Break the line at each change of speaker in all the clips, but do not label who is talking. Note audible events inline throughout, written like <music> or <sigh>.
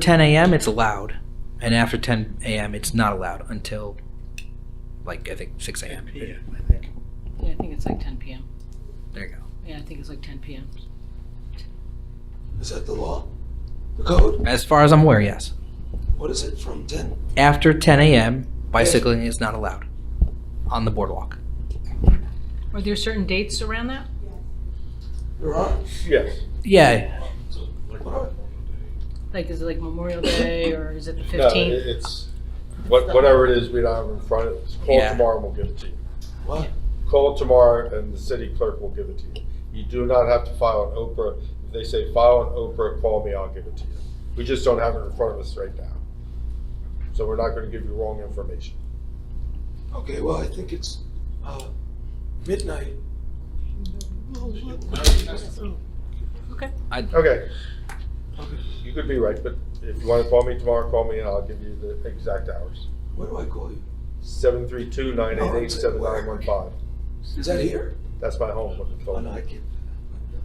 10 a.m., it's allowed. And after 10 a.m., it's not allowed until, like, I think 6 a.m.
Yeah, I think it's like ten PM.
There you go.
Yeah, I think it's like ten PM.
Is that the law? The code?
As far as I'm aware, yes.
What is it from 10?
After 10 a.m., bicycling is not allowed on the boardwalk.
Are there certain dates around that?
There are?
Yes.
Yeah,
What are?
Like, is it like Memorial Day or is it the
No, it-
fifteenth?
it's, what- whatever it is, we don't have in front of us. Call
Yeah.
tomorrow and we'll give it to you.
What?
Call tomorrow and the city clerk will give it to you. You do not have to file an Oprah. If they say file an Oprah, call me, I'll give it to you. We just don't have it in front of us right now. So we're not going to give you wrong information.
Okay, well, I think it's uh, midnight.
Okay,
Okay. You could be right, but if you want to call me tomorrow, call me and I'll give you the exact hours.
What do I call you?
Seven three two nine eight eight seven nine one five.
Is that here?
That's my home. number,
Oh,
phone.
no, I can't.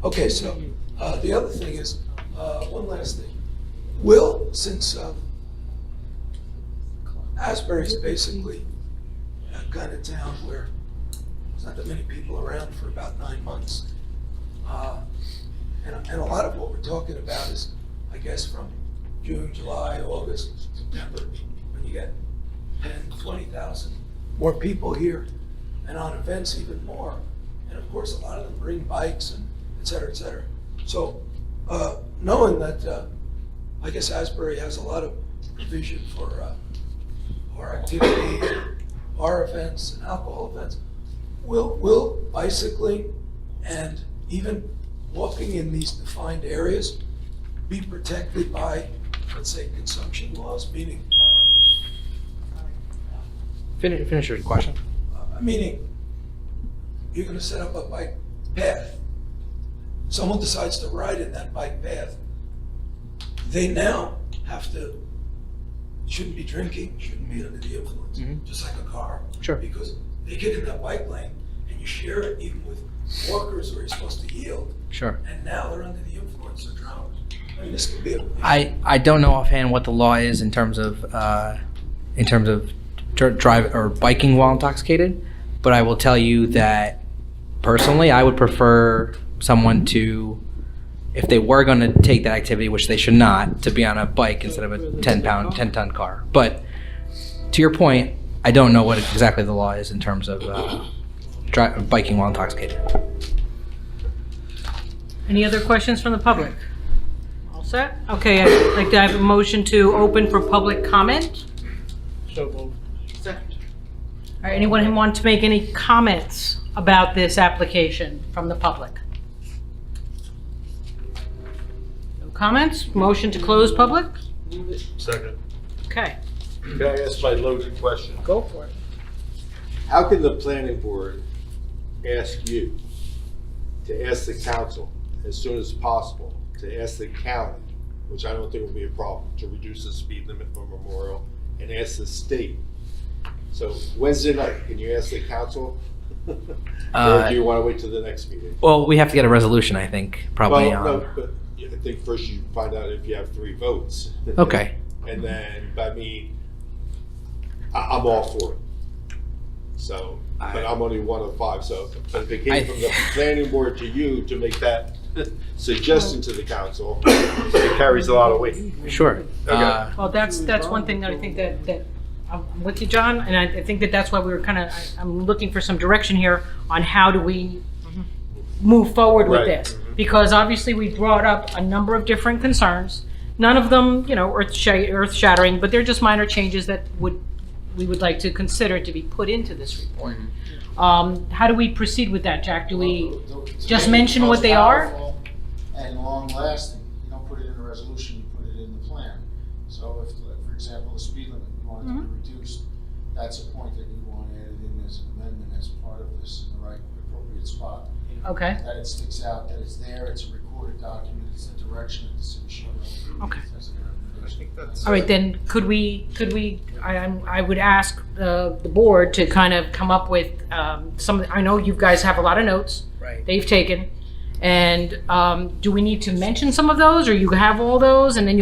Okay, so uh, the other thing is, uh, one last thing. Will, since uh, Asbury's basically uh, a kind of town where there's not that many people around for about nine months. uh, And and a lot of what we're talking about is, I guess, from June, July, August, September, when you get 10, 20,000 more people here, and on events even more. And of course, a lot of them bring bikes and et cetera, et cetera. So uh, knowing that, uh, I guess Asbury has a lot of provision for uh, our activity, our events, and alcohol events. Will, will bicycling and even walking in these defined areas be protected by, let's say, consumption laws? Meaning,
finish, finish your question.
uh, meaning, you're gonna set up a bike path. Someone decides to ride in that bike path. They now have to, shouldn't be drinking, shouldn't be under the influence,
Mhm.
just like a car.
Sure.
Because they get in that bike lane and you share it even with walkers where you're supposed to yield,
Sure.
and now they're under the influence of drunk. I mean, this could be a.
I, I don't know offhand what the law is in terms of, uh, in terms of dr- drive or biking while intoxicated, but I will tell you that personally, I would prefer someone to, if they were going to take that activity, which they should not, to be on a bike instead of a 10 pound, 10 ton car. But to your point, I don't know what exactly the law is in terms of uh, dri- biking while intoxicated.
any other questions from the public? All set? Okay, I'd like to have a motion to open for public comment.
Second.
All right, anyone who wants to make any comments about this application from the public? No comments? Motion to close public?
Move it.
Second.
Okay,
Can I ask my loaded question?
go for it.
How can the planning board ask you to ask the council as soon as possible, to ask the county, which I don't think will be a problem, to reduce the speed limit for Memorial, and ask the state? So Wednesday night, can you ask the council? Or
<laughs> Uh,
do you want to wait till the next meeting?
Well, we have to get a resolution, I think, probably
Well, no,
on.
but I think first you find out if you have three votes.
Okay.
And then, I mean, I, I'm all for it. So, but I'm only one of five, so, but if it
I-
came from
<laughs>
the planning board to you to make that suggestion to the council, it carries a lot of weight.
Sure. Uh,
Well, that's, that's one thing that I think that, that, I'm with you, John, and I, I think that that's why we were kind of, I'm looking for some direction here on how do we move forward with
Right.
this? Because obviously, we brought up a number of different concerns, none of them, you know, earth sha- earth shattering, but they're just minor changes that would, we would like to consider to be put into this report. Um, how do we proceed with that, Jack? Do we, just mention what they are?
And long-lasting, you don't put it in a resolution, you put it in the plan. So if, like, for example, the speed limit, you want it
Mm-hmm.
to be reduced, that's a point that you want added in as an amendment as part of this in the right appropriate spot.
okay,
That it sticks out, that it's there, it's a recorded document, it's the direction that the city should go.
Okay.
That's a good recommendation.
All right, then, could we, could we, I, I'm- I would ask uh, the, the board to kind of come up with, um, some, I know you guys have a lot of notes
Right.
they've taken. And, um, do we need to mention some of those, or you have all those, and then you'll